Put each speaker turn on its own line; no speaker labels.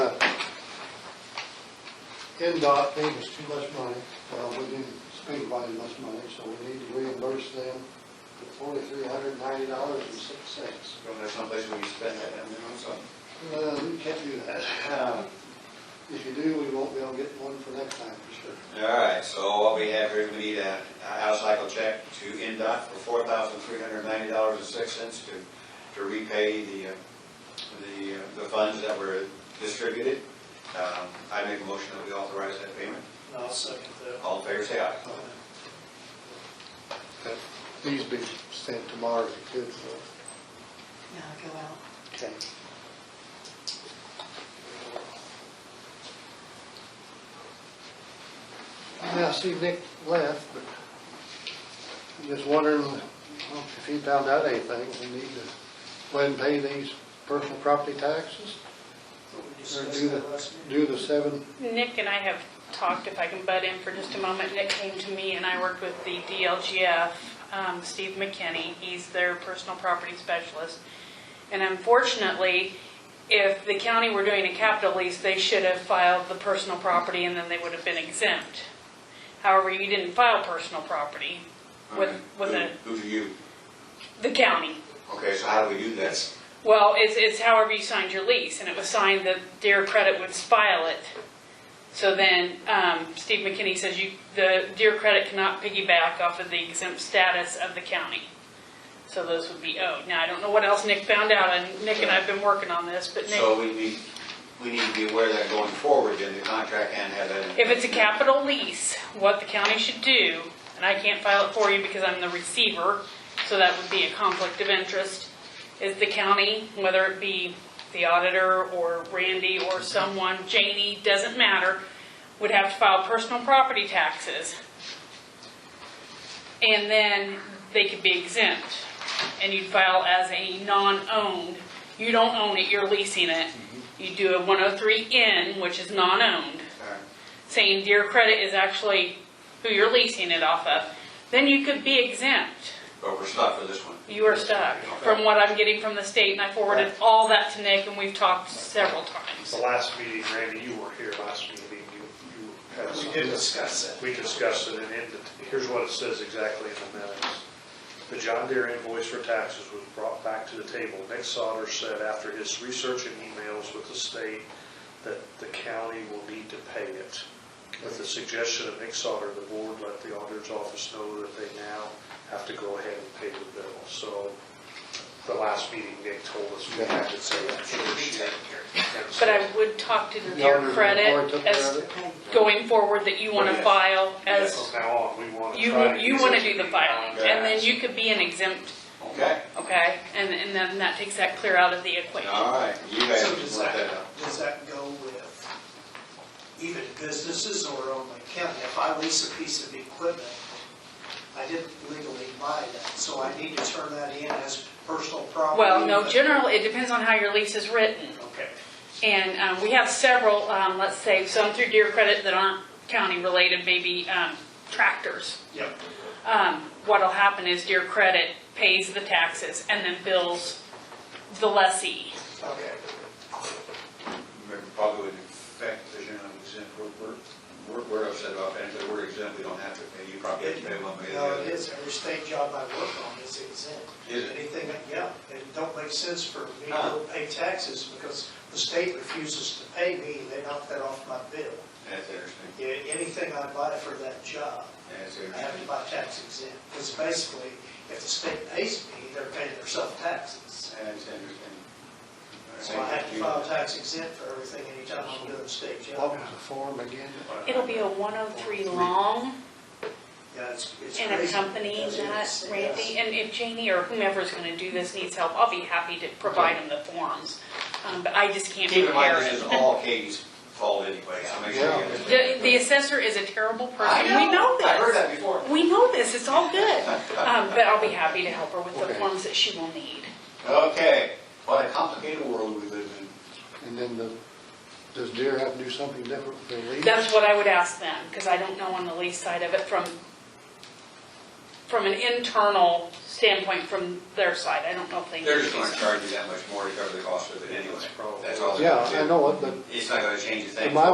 NDOT paid us too much money, well, we didn't spend quite as much money, so we need to reimburse them the forty-three hundred ninety dollars and six cents.
Well, there's someplace where you spend that, and then also.
Uh, we can't do that. um, If you do, we won't be able to get one for next time, for sure.
All right, so what we have here, we need a, a out-of-cycle check to NDOT for four thousand three hundred ninety dollars and six cents to, to repay the, uh, the, uh, the funds that were distributed. Um, I make a motion that we authorize that payment.
I'll second that.
All in favor, say aye.
These be sent tomorrow if you could, so.
No, go out.
Okay. Yeah, I see Nick left, but I'm just wondering if he found out anything. We need to go ahead and pay these personal property taxes,
What we
or
discussed
do
that
the,
last meeting.
do the seven,
Nick and I have talked, if I can butt in for just a moment, Nick came to me and I worked with the DLGF, um, Steve McKinney, he's their personal property specialist. And unfortunately, if the county were doing a capital lease, they should have filed the personal property and then they would have been exempt. However, you didn't file personal property with, with the,
Who who do you?
the county.
Okay, so how do we do that?
Well, it's, it's however you signed your lease, and it was signed that Deer Credit would file it. So then, um, Steve McKinney says you, the Deer Credit cannot piggyback off of the exempt status of the county. So those would be owed. Now, I don't know what else Nick found out, and Nick and I've been working on this, but Nick,
So we need, we need to be aware of that going forward in the contract and have that. in-
if it's a capital lease, what the county should do, and I can't file it for you because I'm the receiver, so that would be a conflict of interest, is the county, whether it be the auditor or Randy or someone, Janie, doesn't matter, would have to file personal property taxes. And then they could be exempt. And you'd file as a non-owned, you don't own it, you're leasing it. You do a 103N, which is non-owned
All right.
saying Dear Credit is actually who you're leasing it off of, then you could be exempt.
But we're stuck with this one.
You are stuck, from what I'm getting from the state, and I forwarded all that to Nick, and we've talked several
The
times.
last meeting, Randy, you were here last meeting, you, you had
We
some.
did discuss it.
We discussed it, and it- here's what it says exactly in the minutes. The John Deere invoice for taxes was brought back to the table. Nick Sauter said after his research and emails with the state that the county will need to pay it. With the suggestion of Nick Sauter, the board let the auditor's office know that they now have to go ahead and pay the bill. So the last meeting, Nick told us we had to say that.
It'll be taken care of.
But I would talk to
the
Dear
auditor's report
Credit
took care of
as
it?
going forward that you want to
Yes.
file as,
From now on, we want to
you,
try.
you
use
want to
it.
do the filing, and then you could be an exempt,
Okay,
okay? And, and then that takes that clear out of the equation.
all right, you guys
So does
can work that out.
that, does that go with even businesses or only county? If I lease a piece of equipment, I didn't legally buy that, so I need to turn that in as personal property?
Well, no, generally, it depends on how your lease is written.
Okay.
And um, we have several, um, let's say, some through Deer Credit that aren't county-related, maybe um, tractors.
Yep.
Um, What'll happen is Deer Credit pays the taxes and then bills the lessee.
Okay.
Probably would affect, because you're not exempt, we're, we're, we're upset about that, but we're exempt, we don't have to pay, you probably have to pay one way or the
No, it
other.
is, every state job I work on is exempt.
Is it?
Anything, yeah, it don't make sense for me
Huh.
to pay taxes because the state refuses to pay me, they knock that off my bill.
That's interesting,
Yeah, Anything I buy for that job,
that's
I have to
interesting.
buy tax exempt. Because basically, if the state pays me, they're paying themselves taxes.
That's interesting.
So I have to file tax exempt for everything anytime I'm doing a state
What
job.
was the form again?
It'll be a 103 long
Yeah, it's- it's
and
crazy.
accompany
That's-
that,
it's-
Randy. And if Janie or whomever's going to do this needs help, I'll be happy to provide them the forms. Um, But I just can't
Keep in mind,
prepare
this is
it.
all Katie's fault anyway, so make sure you
Yeah.
The
understand.
the assessor is a terrible
I
person. We know this.
I heard that before.
We know this, it's all good. Um, but I'll be happy to help her with the
Okay.
forms that she will need.
Okay, what a complicated world we live in.
And then the, does Deere have to do something different with their lease?
That's what I would ask them, because I don't know on the lease side of it from, from an internal standpoint from their side. I don't know if they.
They're
need
just
to do
gonna
something.
charge you that much more to cover the cost of it anyway, that's all. they're
Yeah,
gonna
I
do.
know it, but
It's not gonna change a thing.
My